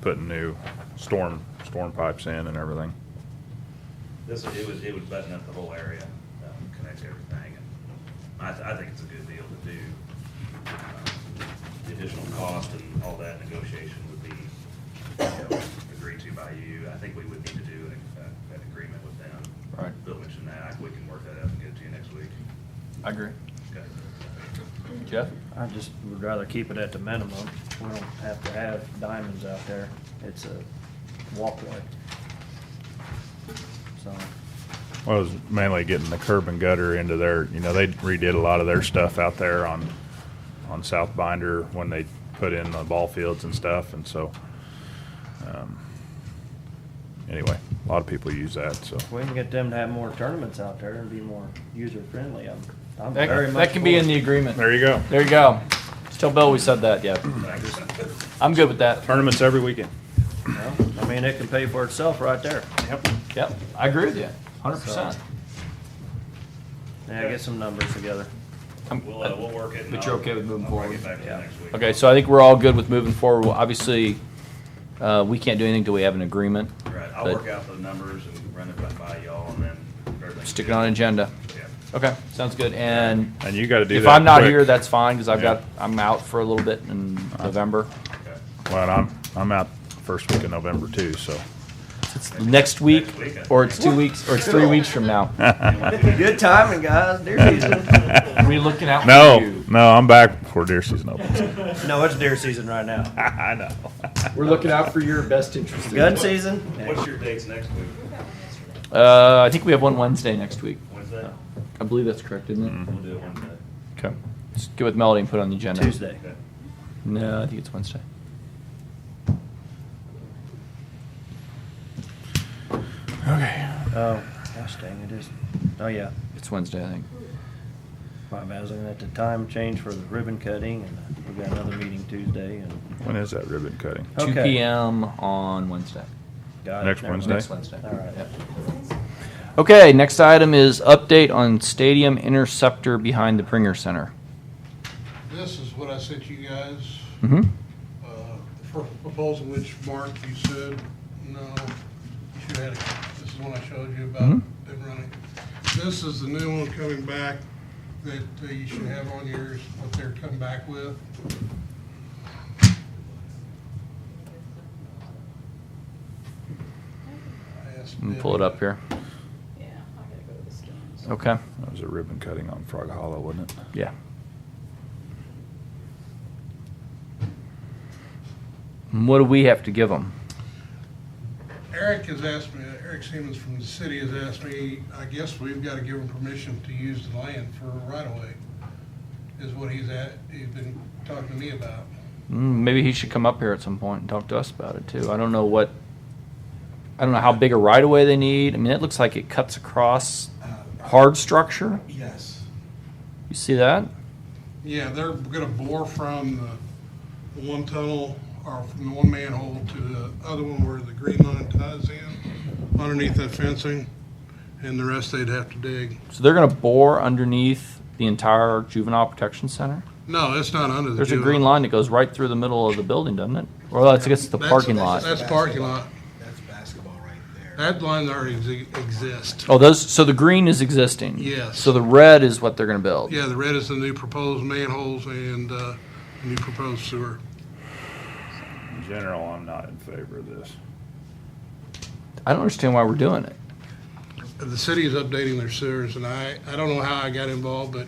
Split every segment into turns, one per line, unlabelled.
putting new storm, storm pipes in and everything.
This, it would, it would button up the whole area, um, connect everything, and I, th- I think it's a good deal to do. Um, The additional cost and all that negotiation would be, you know, agreed to by you, I think we would need to do an, uh, an agreement with them.
Right.
Bill mentioned that, we can work that out and get it to you next week.
I agree.
Okay.
Jeff?
I just would rather keep it at the minimum. We don't have to have diamonds out there. It's a walkway. So,
Well, it was mainly getting the curb and gutter into their, you know, they redid a lot of their stuff out there on, on South Binder when they put in the ball fields and stuff, and so, um, anyway, a lot of people use that, so.
if we can get them to have more tournaments out there and be more user-friendly, I'm, I'm very
That,
much.
that can be
for
in the
it.
agreement.
There you go.
There you go. Just tell Bill we said that, yeah. I'm good with that.
Tournaments every weekend.
Well, I mean, it can pay for itself right there.
Yep.
Yep, I agree with you, hundred percent.
Yeah, get some numbers together.
We'll, uh, we'll work it. and
But you're
I'll-
okay with moving
I'll bring
forward?
it back to you
Yeah.
next week.
Okay, so I think we're all good with moving forward. Well, Obviously, uh, we can't do anything till we have an agreement.
Right, I'll
but-
work out the numbers and run it by- by y'all, and then everything.
Stick it on an agenda.
Yeah.
Okay, sounds good, and
And you gotta do that.
if I'm not
quick.
here, that's fine, because I've
Yeah.
got, I'm out for a little bit in November.
Okay.
Well, and I'm, I'm out first week of November too, so.
Next week,
Next week, I
or it's two weeks, or it's three weeks from now.
Good timing, guys, deer season.
We looking out for
No,
you.
no, I'm back before deer season opens.
No, it's deer season right now.
I know.
We're looking out for your best interest.
Gun season?
What's your dates next week?
Uh, I think we have one Wednesday next week.
Wednesday?
I believe that's correct, isn't
We'll do it Wednesday.
it? Mm-hmm. Okay. Just get with Melody and put it on the agenda.
Tuesday.
Okay.
No, I think it's Wednesday.
Okay.
Oh, gosh dang, it is, oh yeah.
It's Wednesday, I think.
My bad, I was looking at the time change for the ribbon cutting, and we got another meeting Tuesday, and.
When is that ribbon cutting?
Two
Okay.
PM on Wednesday.
Got it,
Next
never mind.
Wednesday?
Next Wednesday.
All right.
Yep. Okay, next item is update on stadium interceptor behind the Pringer Center.
This is what I sent you guys,
hmm
uh, the first proposal which, Mark, you said, no, you should have, had it. this is one I showed you about
Mhm.
them running. This is the new one coming back that uh, you should have on yours, what they're coming back with. I asked
Let me pull it up here.
Yeah, I gotta go to the scans.
Okay,
That was a ribbon cutting on Frog Hollow, wasn't it?
yeah. And What do we have to give them?
Eric has asked me, Eric Siemens from the city has asked me, I guess we've got to give him permission to use the land for a right of way, is what he's at, he's been talking to me about.
Mm, Maybe he should come up here at some point and talk to us about it too. I don't know what, I don't know how big a right of way they need. I mean, it looks like it cuts across hard structure.
Yes.
You see that?
Yeah, they're gonna bore from the one tunnel, or from the one manhole to the other one where the green line ties in, underneath that fencing, and the rest they'd have to dig.
So they're going to bore underneath the entire juvenile protection center.
No, it's not under the.
There's a
juvenile.
green line that goes right through the middle of the building, doesn't it? Or that's I guess the
That's-
parking lot.
That's parking lot,
That's basketball right there.
that line already exi- exists.
Oh, those. So the green is existing.
Yes.
So the red is what they're going to build.
Yeah, the red is the new proposed manholes and uh, new proposed sewer.
In general, I'm not in favor of this.
I don't understand why we're doing it.
The city is updating their sewers, and I, I don't know how I got involved, but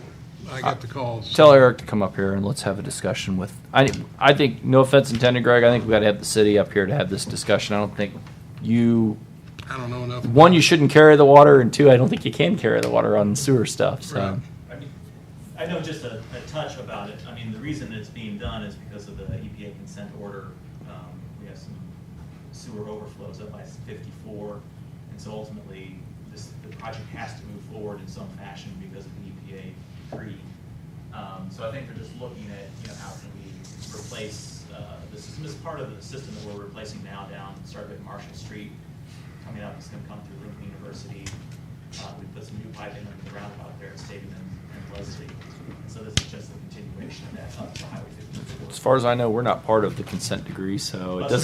I got the calls.
Tell Eric to come up here and let's have a discussion with. I I think no offense intended, Greg. I think we got to have the city up here to have this discussion. I don't think you
I don't know enough.
one you shouldn't carry the water, and two I don't think you can carry the water on sewer stuff. So.
Right.
I mean, I know just a, a touch about it. I mean, the reason it's being done is because of the EPA consent order. Um, We have some sewer overflows up by fifty-four, and so ultimately, this, the project has to move forward in some fashion because of the EPA decree. Um, So I think they're just looking at, you know, how can we replace, uh, the system, this is part of the system that we're replacing now down, started at Marshall Street, coming up, it's gonna come through Lincoln University. Uh, we put some new pipe in under the roundabout there at Stadium and and Leslie. And so this is just a continuation of that up to Highway fifty-four.
As far as I know, we're not part of the consent degree, so it doesn't.